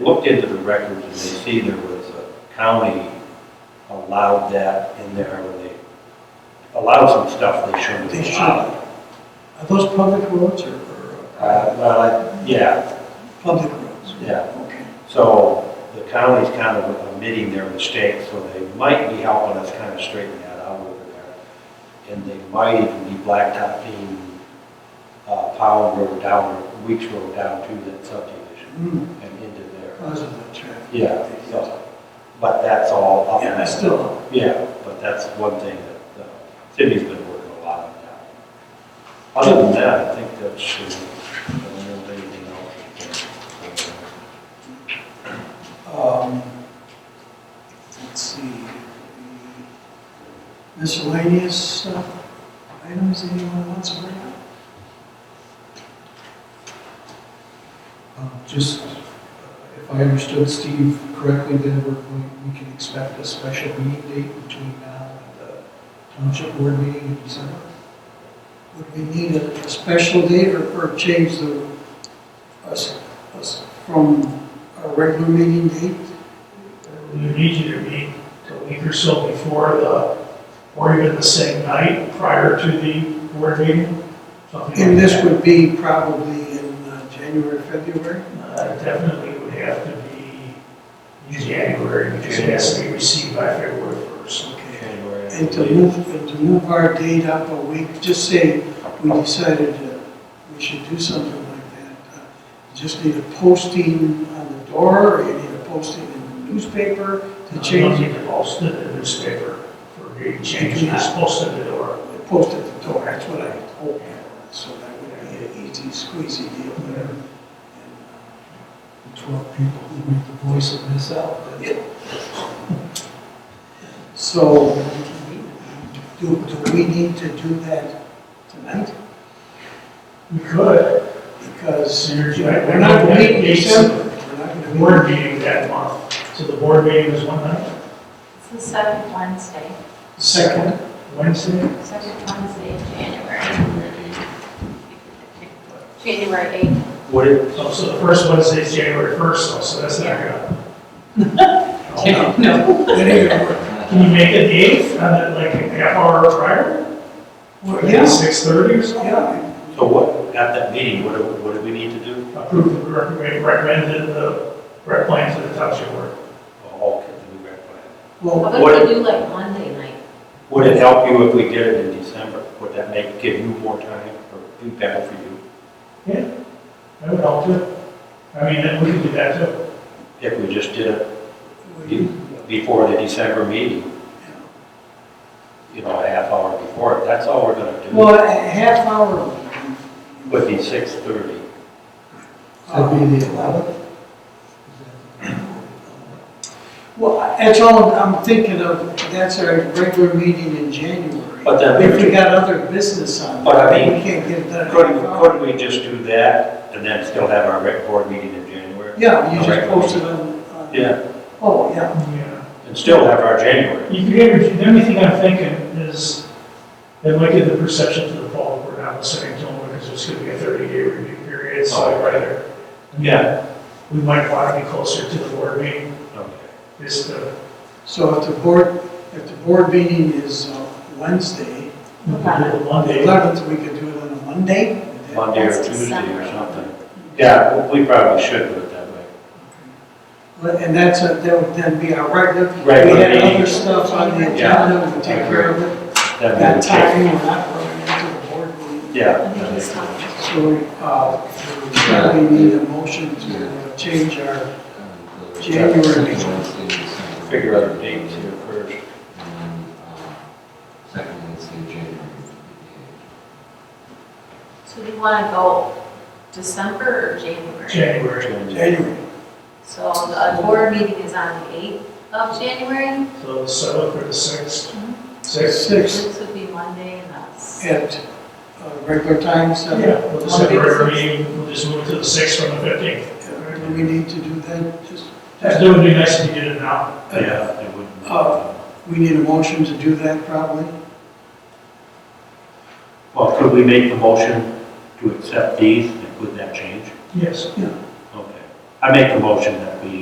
looked into the records and they see there was a county allowed that in there when they allowed some stuff they shouldn't They have allowed. Are those public roads or, or Uh, Well, I- yeah, public roads? yeah. Okay. So the county's kind of admitting their mistake, so they might be helping us kind of straighten that out over there. And they might even be blacktopping uh, Powell Road down, or Weeks Road down to that subdivision Hmm, and into there. Cause of the traffic. Yeah, so, but that's all up. Yeah, that's still, Yeah, but that's one thing that the city's been working a lot on now. Other than that, I think that's, uh, I don't know if anything else. uh, um, let's see. Miscellaneous uh, items anyone wants to bring up? Um, Just, uh, if I understood Steve correctly, then we're, going- we can expect a special meeting date between now and the township board meeting in December? Would we need a special date or, or change the, us, us from our regular meeting date? You need to meet a week or so before the, or even the same night prior to the board meeting. something And like this that. would be probably in uh, January, February? Uh, Definitely would have to be in January because it has to be received by February 1st. Okay. January, I And to believe. move, and to move our date up a week, just say we decided uh, we should do something like that. uh, you Just need a posting on the door, or you need a posting in the newspaper to Uh, change it, It posted in the newspaper for the change, it's posted in the door. post at the door, that's what I hope. So that would be an easy squeezy deal there. And, The Twelve people who make the voice of this out. uh, So, do, do we need to do that tonight? We could, Because You're- we're not going to meet in December. We're not the going to meet. board meeting that month, so the board meeting is one night, It's the second Wednesday, Second, Wednesday. second Wednesday in January. January 8th. Would it, So, so the first Wednesday is January first, so- so that's not gonna. No. that ain't gonna work. Can you make it the eighth, on that, like a half hour prior? Yeah. Or maybe six thirty or something? Yeah, so what, at that meeting, what do, what do we need to do? Approve, the rec- we recommended the rec plan to the township board. Oh, okay, the new rec plan. well, What if we do like Monday night? Would it help you if we did it in December? Would that make, give you more time or be better for you That would help too. I mean, then we could do that too. if we just did it we- before the December meeting? You know, a half hour before it, that's all we're gonna do. well, a half hour. Would be six thirty. That'd be the eleventh? Well, that's all I'm thinking of, that's our regular meeting in January. But then- If we got other business on, But I mean, we can't get it done. in Couldn't, half hour. couldn't we just do that and then still have our rec board meeting in January? Yeah, you just Right. post it on. on- Yeah, Oh, yeah, Yeah. and still have our January. You could get, your- the only thing I'm thinking is, it might give the perception to the public we're not listening to them, because it's gonna be a thirty day review period, so I'd rather. Yeah. We might wanna be closer to the board meeting, Okay. is the, so if the board, if the board meeting is uh, Wednesday, the Monday. eleventh, we could do it on a Monday? Monday or That's Tuesday or December. something. Yeah, we probably should do it that way. Well, And that's, a- that would then be our regular. Regular We had meeting. other stuff on the Yeah. agenda, we take care of it. That would That be- time, we're not running into the board meeting. Yeah. I think that it's makes sense. not. So, uh, we probably need a motion to change our, January. Figure out the dates here first. And, um, Second Wednesday, in January. So do you want to go December or January? January, January. So the board meeting is on the 8th of January. so the seventh or the sixth, sixth. Six This would be Monday and that's. at uh, regular time, so Yeah, we'll just Monday, have our sixth. meeting, we'll just move to the sixth from the fifteenth. uh, do we need to do that? Just, It would be nice if you did it now. Yeah, it wouldn't. Uh, we need a motion to do that probably? Well, could we make the motion to accept these and would that change? Yes. Okay. I make the motion that we